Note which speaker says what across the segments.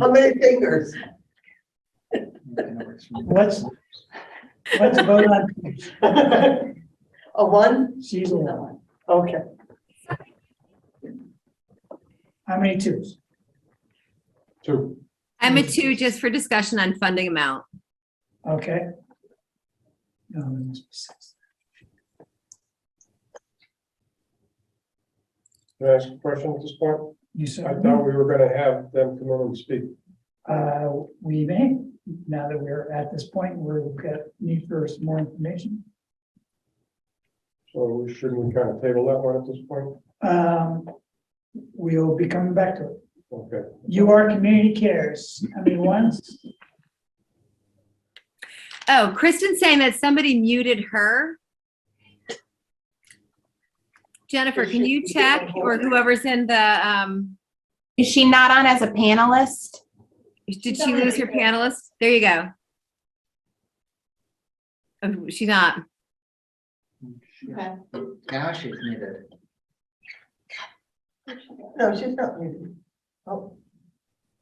Speaker 1: How many fingers?
Speaker 2: Let's, let's vote on
Speaker 1: A one?
Speaker 2: season one.
Speaker 1: Okay.
Speaker 2: How many twos?
Speaker 3: Two.
Speaker 4: I'm a two just for discussion on funding amount.
Speaker 2: Okay. No, there must be six.
Speaker 3: Can I ask a question at this point?
Speaker 2: You
Speaker 3: I
Speaker 2: said,
Speaker 3: thought we were gonna have them come in and speak.
Speaker 2: uh, we may, now that we're at this point, we're gonna need for some more information.
Speaker 3: So shouldn't we kind of table that one at this point?
Speaker 2: Um, we'll be coming back to it.
Speaker 3: Okay.
Speaker 2: You are community cares. How many ones?
Speaker 4: Oh, Kristen's saying that somebody muted her. Jennifer, can you check or whoever's in the, um,
Speaker 5: Is she not on as a panelist?
Speaker 4: did she lose her panelist? There you go. Oh, she's not.
Speaker 5: Okay.
Speaker 6: Now she's muted.
Speaker 1: No, she's not muted. Oh,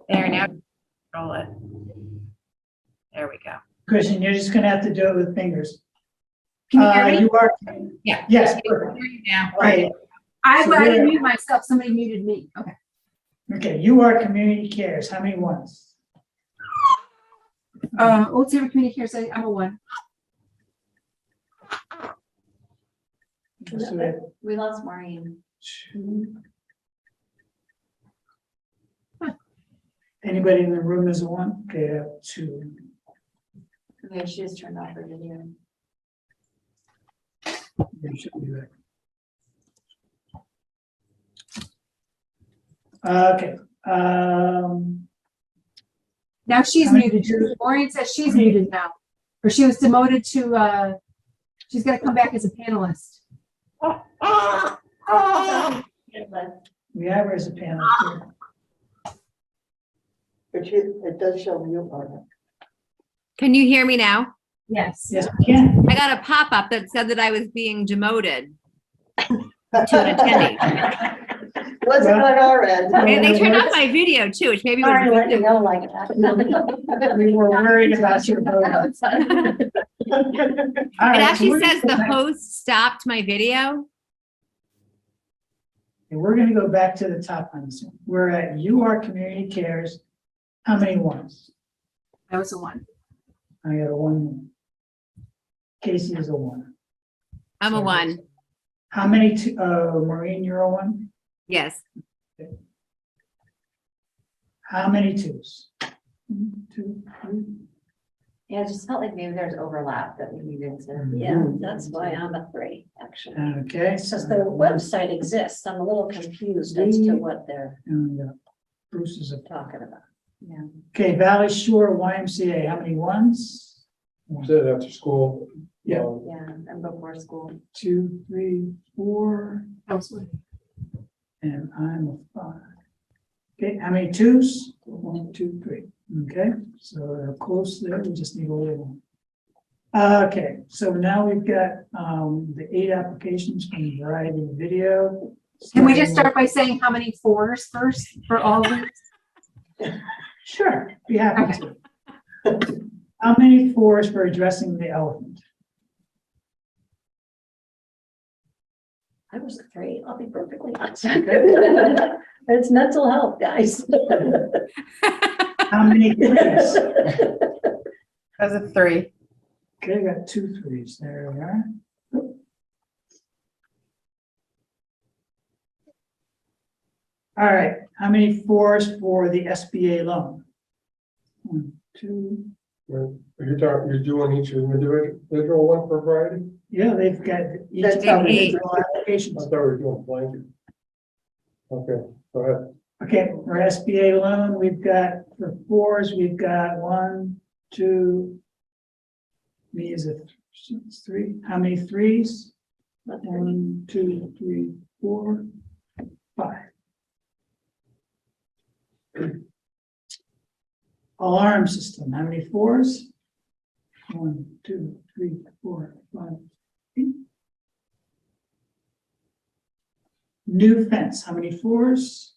Speaker 5: There now. Roll it. There we go.
Speaker 2: Christian, you're just gonna have to do it with fingers.
Speaker 5: Can you
Speaker 2: Uh,
Speaker 5: hear me?
Speaker 2: You are,
Speaker 5: Yeah.
Speaker 2: yes,
Speaker 5: I
Speaker 2: perfect.
Speaker 5: can hear you now.
Speaker 2: Right.
Speaker 5: I,
Speaker 2: So
Speaker 5: I
Speaker 2: there-
Speaker 5: didn't mute myself. Somebody muted me. Okay.
Speaker 2: Okay, you are community cares. How many ones?
Speaker 5: Uh, Old Saybrook Community Cares, I- I'm a one.
Speaker 2: Just so that-
Speaker 5: We lost Maureen.
Speaker 2: Anybody in the room is a one? Okay, I have two.
Speaker 5: Yeah, she just turned off her video.
Speaker 2: They should be back. Okay, um,
Speaker 5: Now she's
Speaker 2: How many
Speaker 5: muted.
Speaker 2: did you-
Speaker 5: Maureen says she's muted now, or she was demoted to, uh, she's gonna come back as a panelist.
Speaker 2: we have her as a panelist.
Speaker 1: but she, it does show mute on it.
Speaker 4: Can you hear me now?
Speaker 5: Yes.
Speaker 2: Yes, we can.
Speaker 4: I got a pop-up that said that I was being demoted to an attendee.
Speaker 1: Wasn't on our end.
Speaker 4: And they turned off my video too, which maybe
Speaker 1: Sorry to let you
Speaker 4: was.
Speaker 1: know like that.
Speaker 2: We were worried about your vote. All
Speaker 4: It
Speaker 2: right, so we're
Speaker 4: actually
Speaker 2: gonna
Speaker 4: says
Speaker 2: go
Speaker 4: the
Speaker 2: back-
Speaker 4: host stopped my video.
Speaker 2: and We're gonna go back to the top on this one. We're at you are community cares. How many ones?
Speaker 5: I was a one.
Speaker 2: I got a one. Casey is a one.
Speaker 4: I'm a
Speaker 2: Sorry.
Speaker 4: one.
Speaker 2: How many, t- uh, Maureen, you're a one?
Speaker 4: Yes.
Speaker 2: How many twos? One, Two, three.
Speaker 7: Yeah, it just felt like maybe there's overlap that we needed to.
Speaker 8: Yeah, that's why I'm a three, actually.
Speaker 2: Okay.
Speaker 7: Since the website exists, I'm a little confused as to what they're
Speaker 2: And we got Bruce is a,
Speaker 7: talking about. Yeah.
Speaker 2: okay, Valley Shore YMCA, how many ones?
Speaker 3: Did it after school.
Speaker 2: Yeah.
Speaker 3: Um,
Speaker 7: Yeah, and before school.
Speaker 2: Two, three, four,
Speaker 5: I was one.
Speaker 2: and I'm a five. Okay, how many twos? One, two, three. Okay, so they're close there, we just need a little one. Okay, so now we've got, um, the eight applications from Variety Video.
Speaker 5: Can we just start by saying how many fours first for all of them?
Speaker 2: Sure, be happy to. How many fours for addressing the elephant?
Speaker 7: I was a three, I'll be perfectly honest. It's mental health, guys.
Speaker 2: How many threes?
Speaker 5: I was a three.
Speaker 2: Okay, I got two threes, there we are. All right, how many fours for the SBA loan? One, two,
Speaker 3: You're you're talking, you're doing each individual one for variety?
Speaker 2: yeah, they've got each
Speaker 1: That's how
Speaker 4: we
Speaker 2: individual
Speaker 3: I
Speaker 2: applications.
Speaker 3: thought we were doing blanket. Okay, go ahead.
Speaker 2: Okay, for SBA loan, we've got, for fours, we've got one, two. Me is a th- three, how many threes? One, two, three, four, five. Alarm system, how many fours? One, two, three, four, five. eight. New fence, how many fours?